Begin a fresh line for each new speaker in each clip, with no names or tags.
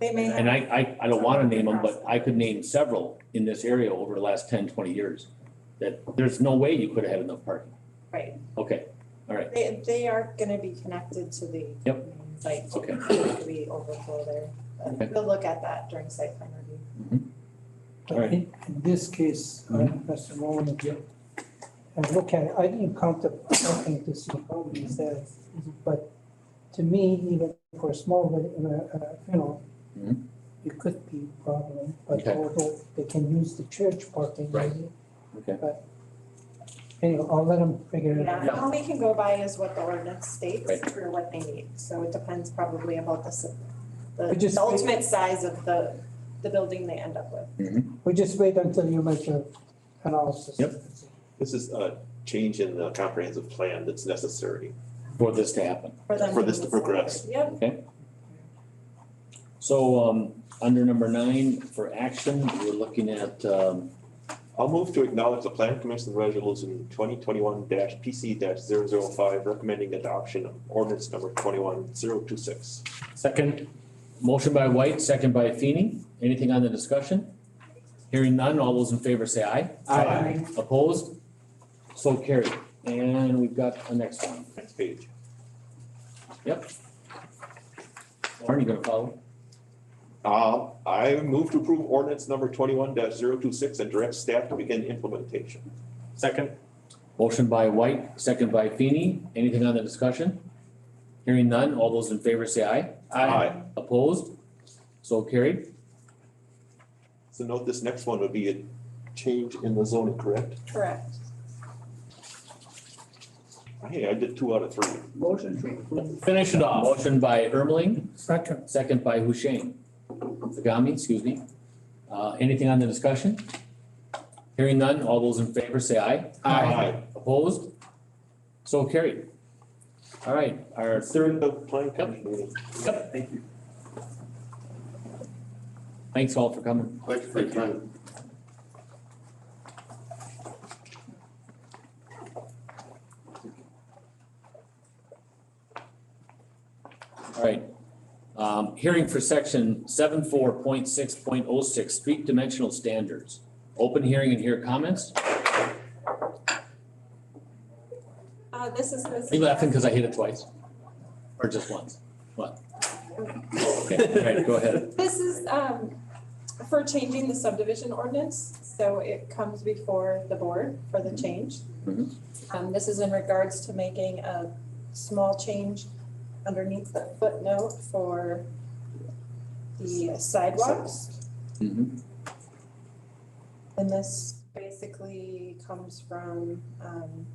They may
And
have,
I, I, I don't wanna name them, but I could name several in this area over the last 10, 20 years. That there's no way you could have had enough parking.
right,
Okay,
they, they are gonna be connected to the
Yep.
main site.
Okay.
We overflow there,
Okay.
but we'll look at that during site plan review.
All right. Mm-hmm.
In in this case, uh, Mr. Rowan, if you, I'm looking, I didn't count the parking to see how many is there. But to me, even for a small, uh, uh, you know,
Mhm.
it could be a problem, but
Okay.
although they can use the church parking
Right.
maybe.
Okay.
But anyway, I'll let them figure it out.
Yeah, all we can go by is what the ordinance states
Right.
for what they need, so it depends probably about the, s- the
We just-
the ultimate size of the, the building they end up with.
We just wait until you make your analysis.
Yep.
This is a change in the comprehensive plan that's necessary.
for this to happen.
them
For this to
move forward.
progress.
Yep,
So, um, under number nine, for action, we're looking at, um,
I'll move to acknowledge the plan commission resolution twenty twenty-one PC 5 recommending adoption of ordinance number twenty-one zero two six.
second, motion by White, second by Feeny. Anything on the discussion? Hearing none, all those in favor say aye.
Aye.
Opposed? So carried. And we've got the next one.
Next page.
Lauren, you gonna follow?
Uh, I move to approve ordinance number twenty-one 26 and direct staff to begin implementation.
Second,
Motion by White, second by Feeny. Anything on the discussion? Hearing none, all those in favor say aye.
Aye.
Opposed? So carried.
So note this next one would be a change in the zoning, correct?
correct.
Hey, I did two out of three.
Motion to approve.
Finish it off. Motion by Ermeling,
Second,
second by Husheng. Zagami, excuse me. Uh, anything on the discussion? Hearing none, all those in favor say aye. Opposed? So carried. All right, our
Third
third,
of plan commission.
Thank you.
thanks all for coming.
Thank you for your time.
All right. Um, hearing for section seven four point six point oh six, street dimensional standards. Open hearing and hear comments.
Uh, this is this.
Are you laughing because I hit it twice? Or just once? What? Okay, all right, go ahead.
This is um for changing the subdivision ordinance, so it comes before the board for the change.
Mhm.
Um, this is in regards to making a small change underneath the footnote for the sidewalks.
Mhm.
And this basically comes from um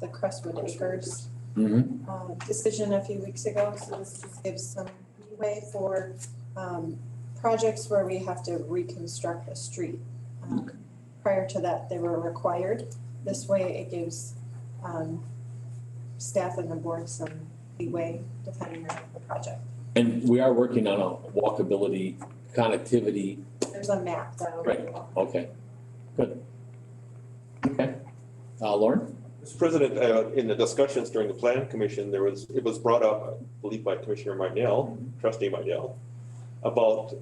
the Crestwood Acres
Mhm.
uh, decision a few weeks ago, so this just gives some leeway for um, projects where we have to reconstruct a street. Um, Prior to that, they were required. This way, it gives um, staff and the board some leeway depending on the project.
And we are working on a walkability, connectivity,
There's a map that'll.
Right. okay, good. Okay, uh, Lauren?
Mr. President, uh, in the discussions during the plan commission, there was, it was brought up, I believe by Commissioner Mydell, trustee Mydell, about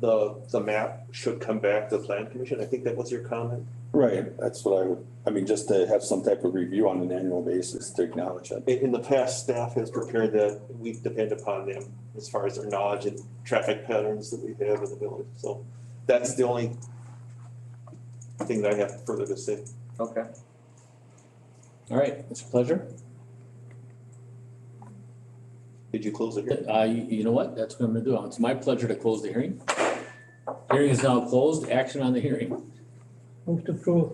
the, the map should come back to the plan commission. I think that was your comment.
Right, that's what I would, I mean, just to have some type of review on an annual basis to acknowledge it.
In, in the past, staff has prepared that. We depend upon them as far as their knowledge and traffic patterns that we have in the village. So that's the only thing that I have further to say.
Okay. All right, it's a pleasure.
Did you close it here?
Uh, you, you know what, that's what I'm gonna do, it's my pleasure to close the hearing. Hearing is now closed, action on the hearing.
move to approve,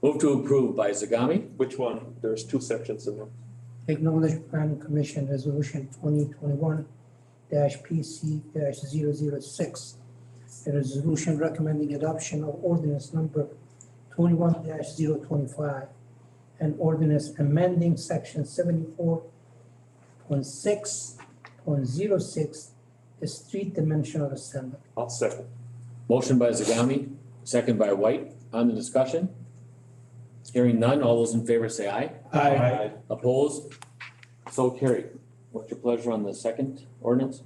Move to approve by Zagami,
Which one? There's two sections in there.
acknowledge planning commission resolution twenty twenty-one PC 6 A resolution recommending adoption of ordinance number twenty-one 25 and ordinance amending section seventy-four point six point zero six, the street dimensional standard.
I'll second.
motion by Zagami, second by White, on the discussion. Hearing none, all those in favor say aye.
Aye.
Opposed? So carried. What's your pleasure on the second ordinance?